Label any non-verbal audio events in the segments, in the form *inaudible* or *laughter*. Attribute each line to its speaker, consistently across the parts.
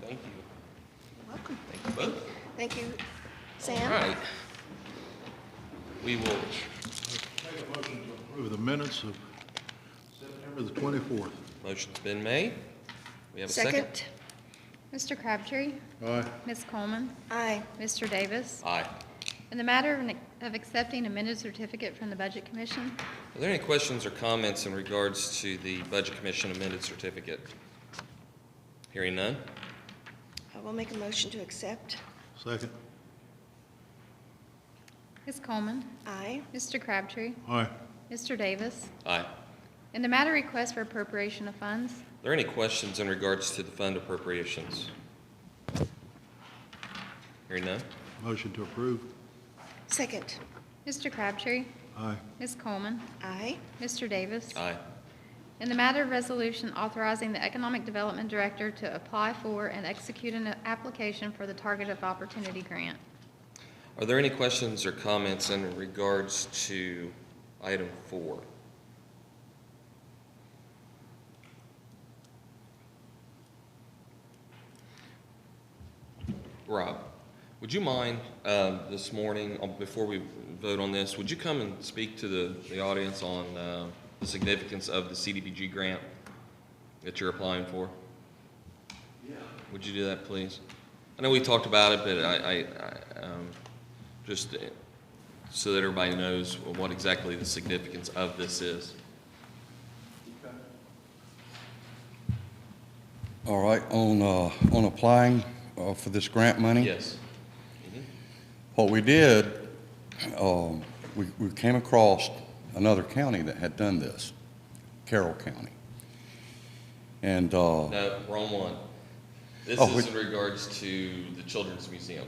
Speaker 1: Thank you.
Speaker 2: Welcome.
Speaker 1: Thank you both.
Speaker 2: Thank you,
Speaker 1: All
Speaker 2: Sam.
Speaker 1: right. We will,
Speaker 3: Make a motion to approve the minutes of September the 24th.
Speaker 1: motion's been made. We have a second?
Speaker 4: Mr. Crabtree,
Speaker 3: Aye.
Speaker 4: Ms. Coleman,
Speaker 2: Aye.
Speaker 4: Mr. Davis.
Speaker 1: Aye.
Speaker 4: In the matter of an- of accepting amended certificate from the Budget Commission,
Speaker 1: Are there any questions or comments in regards to the Budget Commission amended certificate? Hearing none?
Speaker 2: I will make a motion to accept.
Speaker 3: Second.
Speaker 4: Ms. Coleman,
Speaker 2: Aye.
Speaker 4: Mr. Crabtree,
Speaker 3: Aye.
Speaker 4: Mr. Davis.
Speaker 1: Aye. Are
Speaker 4: In the matter of request for appropriation of funds,
Speaker 1: there any questions in regards to the fund appropriations? Hearing none?
Speaker 3: Motion to approve.
Speaker 2: Second.
Speaker 4: Mr. Crabtree,
Speaker 3: Aye.
Speaker 4: Ms. Coleman,
Speaker 2: Aye.
Speaker 4: Mr. Davis.
Speaker 1: Aye.
Speaker 4: In the matter of resolution authorizing the Economic Development Director to apply for and execute an application for the Target of Opportunity Grant.
Speaker 1: Are there any questions or comments in regards to item four? Rob, would you mind um, this morning, uh, before we vote on this, would you come and speak to the the audience on uh, the significance of the CDBG grant that you're applying for? Would you do that, please? I know we talked about it, but I, I, I, um, just uh, so that everybody knows what exactly the significance of this is.
Speaker 5: All right, on, uh, on applying, uh, for this grant money?
Speaker 1: Yes. Mm-hmm.
Speaker 5: What we did, um, we, we came across another county that had done this, Carroll County. And, uh,
Speaker 1: No, wrong one. This
Speaker 5: Oh,
Speaker 1: is
Speaker 5: we-
Speaker 1: in regards to the Children's Museum.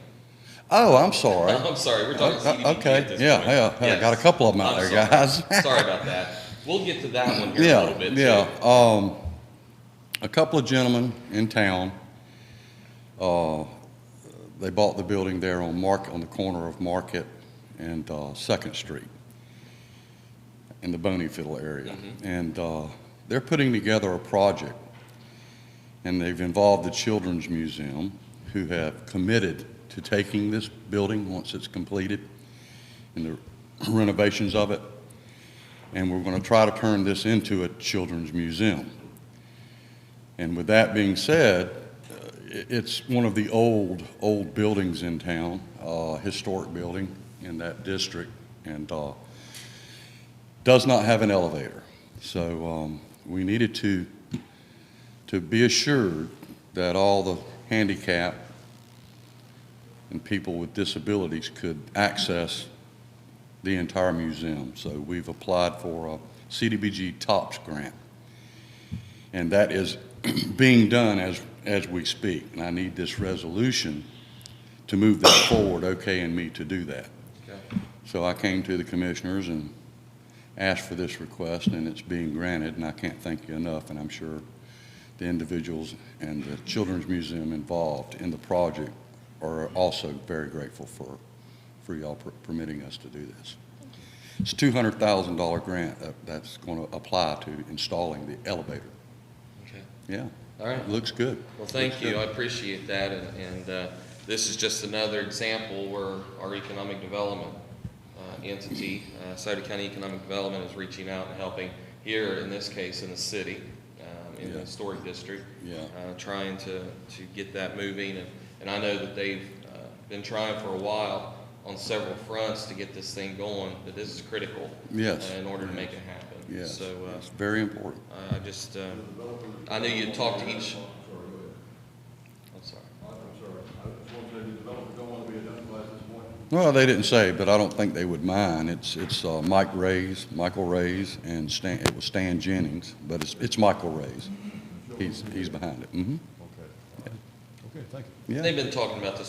Speaker 5: oh, I'm
Speaker 1: *laughs*
Speaker 5: sorry.
Speaker 1: I'm sorry, we're talking
Speaker 5: Uh, uh,
Speaker 1: CDBG
Speaker 5: okay,
Speaker 1: at this
Speaker 5: yeah,
Speaker 1: point.
Speaker 5: yeah, I
Speaker 1: Yes.
Speaker 5: got a couple of 'em out
Speaker 1: I'm
Speaker 5: there,
Speaker 1: sorry.
Speaker 5: guys. *laughs*
Speaker 1: Sorry about that. We'll get to that one here in a little
Speaker 5: Yeah,
Speaker 1: bit.
Speaker 5: yeah.
Speaker 1: too.
Speaker 5: Um, a couple of gentlemen in town, uh, they bought the building there on Mark, on the corner of Market and, uh, Second Street in the Boneyfield area.
Speaker 1: Mm-hmm.
Speaker 5: And, uh, they're putting together a project and they've involved the Children's Museum who have committed to taking this building once it's completed and the renovations of it and we're going to try to turn this into a children's museum. And with that being said, uh, i- it's one of the old, old buildings in town, uh, historic building in that district, and uh, does not have an elevator. So um, we needed to, to be assured that all the handicap and people with disabilities could access the entire museum. So we've applied for a CDBG TOPS grant. And that is *clears throat* being done as, as we speak. And I need this resolution to move that *coughs* forward, okay, and me to do that.
Speaker 1: Okay.
Speaker 5: So I came to the commissioners and asked for this request, and it's being granted, and I can't thank you enough. And I'm sure the individuals and the Children's Museum involved in the project are also very grateful for, for y'all per- permitting us to do this. It's a $200,000 grant that- that's going to apply to installing the elevator.
Speaker 1: Okay.
Speaker 5: Yeah,
Speaker 1: All right.
Speaker 5: looks good.
Speaker 1: Well, thank
Speaker 5: Looks
Speaker 1: you, I
Speaker 5: good.
Speaker 1: appreciate that, and, and uh, this is just another example where our economic development uh, entity, uh, Sauter County Economic Development is reaching out and helping here, in this case, in the city, um, in the
Speaker 5: Yeah.
Speaker 1: historic district.
Speaker 5: Yeah.
Speaker 1: uh, Trying to, to get that moving, and, and I know that they've uh, been trying for a while on several fronts to get this thing going, but this is critical.
Speaker 5: Yes.
Speaker 1: uh, In order to make it happen.
Speaker 5: Yes,
Speaker 1: So, uh,
Speaker 5: it's very important.
Speaker 1: I- I just, uh, I knew you'd talk to each. I'm sorry.
Speaker 3: I'm sorry. I just want to say the developers don't want to be identified at this point.
Speaker 5: Well, they didn't say, but I don't think they would mind. It's, it's uh, Mike Ray's, Michael Ray's, and Stan, it was Stan Jennings, but it's, it's Michael Ray's. He's, he's behind it. Mm-hmm.
Speaker 3: Okay. Okay, thank you.
Speaker 5: Yeah.
Speaker 1: They've been talking about this